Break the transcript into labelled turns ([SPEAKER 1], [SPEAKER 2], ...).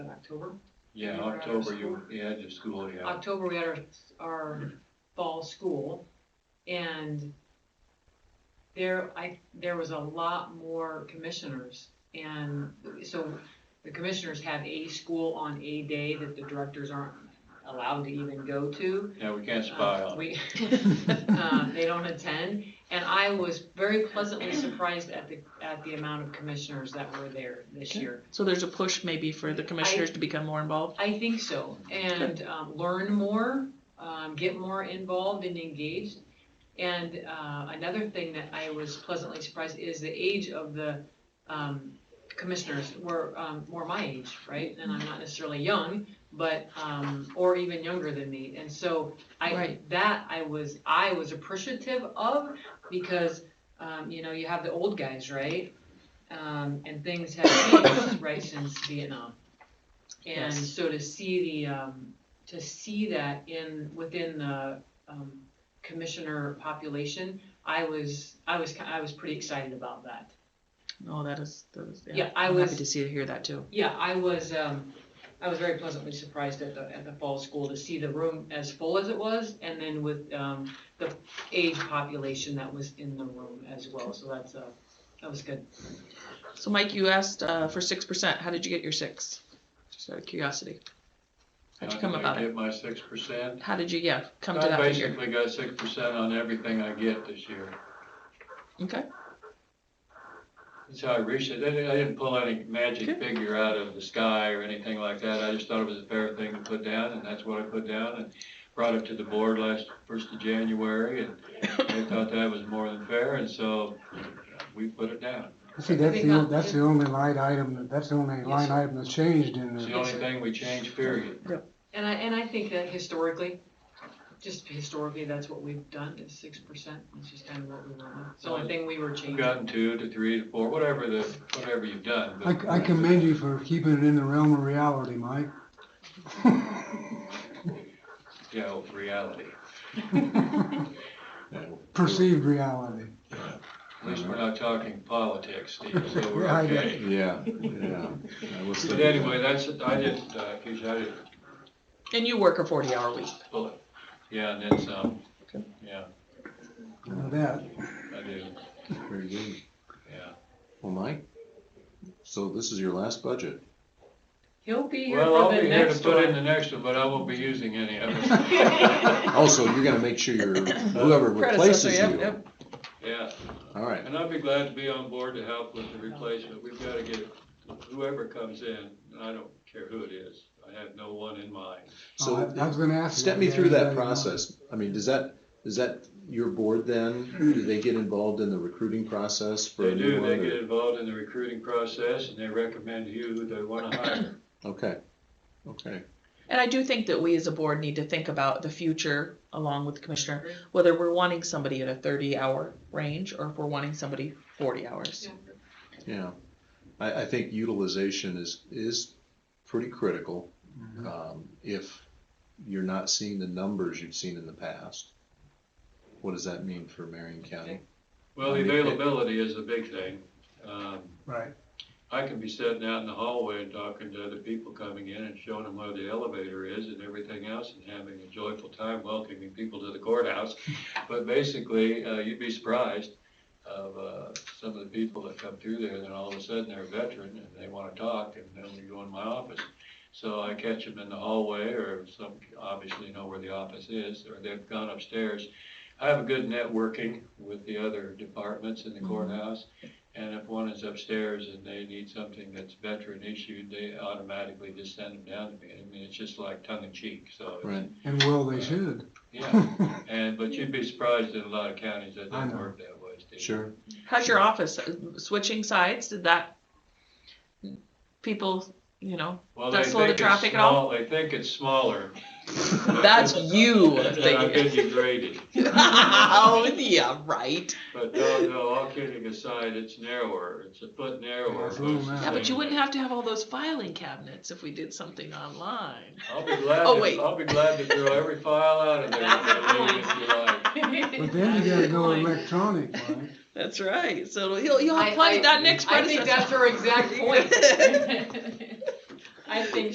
[SPEAKER 1] October.
[SPEAKER 2] Yeah,
[SPEAKER 1] You were out of
[SPEAKER 2] October, you,
[SPEAKER 1] school?
[SPEAKER 2] were- yeah, in school, yeah.
[SPEAKER 1] October, we had our, our fall school, and there, I, there was a lot more commissioners, and so the commissioners have a school on a day that the directors aren't allowed to even go to.
[SPEAKER 2] Yeah, we can't spy
[SPEAKER 1] Uh,
[SPEAKER 2] on it.
[SPEAKER 1] We, uh, they don't attend, and I was very pleasantly surprised at the, at the amount of commissioners that were there this year.
[SPEAKER 3] So there's a push maybe for the commissioners to become more involved?
[SPEAKER 1] I think so, and, um, learn more, um, get more involved and engaged. And, uh, another thing that I was pleasantly surprised is the age of the, um, commissioners were, um, were my age, right? And I'm not necessarily young, but, um, or even younger than me, and so I,
[SPEAKER 3] Right.
[SPEAKER 1] that I was, I was appreciative of, because, um, you know, you have the old guys, right? Um, and things have changed, right, since Vietnam. And
[SPEAKER 3] Yes.
[SPEAKER 1] so to see the, um, to see that in, within the, um, commissioner population, I was, I was, ki- I was pretty excited about that.
[SPEAKER 3] Oh, that is, that is, yeah.
[SPEAKER 1] Yeah, I
[SPEAKER 3] I'm
[SPEAKER 1] was-
[SPEAKER 3] Happy to see, hear that too.
[SPEAKER 1] Yeah, I was, um, I was very pleasantly surprised at the, at the fall school to see the room as full as it was, and then with, um, the age population that was in the room as well, so that's, uh, that was good.
[SPEAKER 3] So Mike, you asked, uh, for six percent. How did you get your six? Just out of curiosity. How'd you come about
[SPEAKER 2] I
[SPEAKER 3] it?
[SPEAKER 2] get my six percent.
[SPEAKER 3] How did you, yeah, come to
[SPEAKER 2] I
[SPEAKER 3] that figure?
[SPEAKER 2] basically got six percent on everything I get this year.
[SPEAKER 3] Okay,
[SPEAKER 2] That's how I reached it. I didn't, I didn't pull any magic
[SPEAKER 3] Good.
[SPEAKER 2] figure out of the sky or anything like that. I just thought it was a fair thing to put down, and that's what I put down, and brought it to the board last, first of January, and they thought that was more than fair, and so we put it down.
[SPEAKER 4] See, that's
[SPEAKER 1] Think
[SPEAKER 4] the,
[SPEAKER 1] about-
[SPEAKER 4] that's the only line item, that- that's the only line
[SPEAKER 1] sir.
[SPEAKER 4] item that's changed in
[SPEAKER 2] It's the
[SPEAKER 4] there.
[SPEAKER 2] only thing we changed, period.
[SPEAKER 1] And I, and I think that historically, just historically, that's what we've done, is six percent, which is kind of what we went with. It's the only thing we were
[SPEAKER 2] We've
[SPEAKER 1] changing.
[SPEAKER 2] gotten two to three to four, whatever the, whatever you've done.
[SPEAKER 4] I,
[SPEAKER 2] but-
[SPEAKER 4] I commend you for keeping it in the realm of reality, Mike.
[SPEAKER 2] Yeah, well, reality.
[SPEAKER 4] Perceived reality.
[SPEAKER 2] At least we're not talking politics, Steve, so we're
[SPEAKER 4] Right.
[SPEAKER 2] okay.
[SPEAKER 5] Yeah, yeah. I was
[SPEAKER 2] But
[SPEAKER 5] thinking that.
[SPEAKER 2] anyway, that's, it. I didn't, uh, Keisha, I didn't
[SPEAKER 3] and you work a forty-hour week.
[SPEAKER 2] pull it. Yeah, and then some.
[SPEAKER 3] Okay.
[SPEAKER 2] Yeah,
[SPEAKER 4] Now that,
[SPEAKER 2] I do,
[SPEAKER 5] Very good.
[SPEAKER 2] yeah.
[SPEAKER 5] Well, Mike, so this is your last budget.
[SPEAKER 1] He'll be here
[SPEAKER 2] Well, I'll
[SPEAKER 1] for
[SPEAKER 2] be
[SPEAKER 1] the
[SPEAKER 2] here to
[SPEAKER 1] next
[SPEAKER 2] put in the
[SPEAKER 1] one.
[SPEAKER 2] next one, but I won't be using any of it.
[SPEAKER 5] Also, you're gonna make sure your, whoever
[SPEAKER 3] Predecessor,
[SPEAKER 5] replaces
[SPEAKER 3] yep,
[SPEAKER 5] you.
[SPEAKER 3] yep.
[SPEAKER 2] Yeah,
[SPEAKER 5] All right,
[SPEAKER 2] and I'd be glad to be on board to help with the replacement. We've got to get whoever comes in, and I don't care who it is. I have no one in mind.
[SPEAKER 4] oh, I I
[SPEAKER 5] so
[SPEAKER 4] was gonna ask. you
[SPEAKER 5] step me
[SPEAKER 4] that.
[SPEAKER 5] through
[SPEAKER 4] Yeah,
[SPEAKER 5] that
[SPEAKER 4] yeah.
[SPEAKER 5] process. I mean, does that, is that your board then? Do they get involved in the recruiting process for
[SPEAKER 2] They
[SPEAKER 5] a new
[SPEAKER 2] do,
[SPEAKER 5] one?
[SPEAKER 2] they get
[SPEAKER 5] or-
[SPEAKER 2] involved in the recruiting process, and they recommend you who they want to hire.
[SPEAKER 5] Okay, okay.
[SPEAKER 3] And I do think that we as a board need to think about the future along with the commissioner, whether we're wanting somebody at a thirty-hour range or if we're wanting somebody forty hours.
[SPEAKER 5] Yeah, I, I think utilization is, is pretty critical.
[SPEAKER 4] Mhm.
[SPEAKER 5] Um, if you're not seeing the numbers you've seen in the past, what does that mean for Marion County?
[SPEAKER 2] Well, the availability is a big thing. Um,
[SPEAKER 4] Right.
[SPEAKER 2] I can be sitting out in the hallway and talking to other people coming in and showing them where the elevator is and everything else and having a joyful time welcoming people to the courthouse. But basically, uh, you'd be surprised of, uh, some of the people that come through there and then all of a sudden they're a veteran and they wanna talk and then we go in my office. So I catch them in the hallway or some, obviously know where the office is, or they've gone upstairs. I have a good networking with the other departments in the
[SPEAKER 3] Mhm.
[SPEAKER 2] courthouse. And if one is upstairs and they need something that's veteran issued, they automatically just send them down to me. I mean, it's just like tongue in cheek, so. it's-
[SPEAKER 5] Right,
[SPEAKER 4] And well, they should.
[SPEAKER 2] Yeah, and, but you'd be surprised in a lot of counties that
[SPEAKER 4] I
[SPEAKER 2] don't
[SPEAKER 4] know.
[SPEAKER 2] work that way, Steve.
[SPEAKER 5] sure.
[SPEAKER 3] How's your office, Uh, switching sides, did that, people, you know,
[SPEAKER 2] Well,
[SPEAKER 3] Does
[SPEAKER 2] they
[SPEAKER 3] slow the
[SPEAKER 2] think it's
[SPEAKER 3] traffic at all?
[SPEAKER 2] small- They think it's smaller.
[SPEAKER 3] that's you
[SPEAKER 2] And I've been degraded.
[SPEAKER 3] oh yeah, right.
[SPEAKER 2] But no, no, all kidding aside, it's narrower. It's a foot narrower.
[SPEAKER 4] It's a little
[SPEAKER 2] versus
[SPEAKER 4] narrow.
[SPEAKER 3] Yeah, but you
[SPEAKER 2] saying-
[SPEAKER 3] wouldn't have to have all those filing cabinets if we did something online.
[SPEAKER 2] I'll be glad,
[SPEAKER 3] Oh,
[SPEAKER 2] to-
[SPEAKER 3] wait.
[SPEAKER 2] I'll be glad to throw every file out of there and leave if you like.
[SPEAKER 4] But then you gotta go electronic, Mike.
[SPEAKER 3] That's right. So you'll you'll
[SPEAKER 1] I-
[SPEAKER 3] have plenty
[SPEAKER 1] I-
[SPEAKER 3] that next
[SPEAKER 1] I think
[SPEAKER 3] predecessor.
[SPEAKER 1] that's her exact point. I think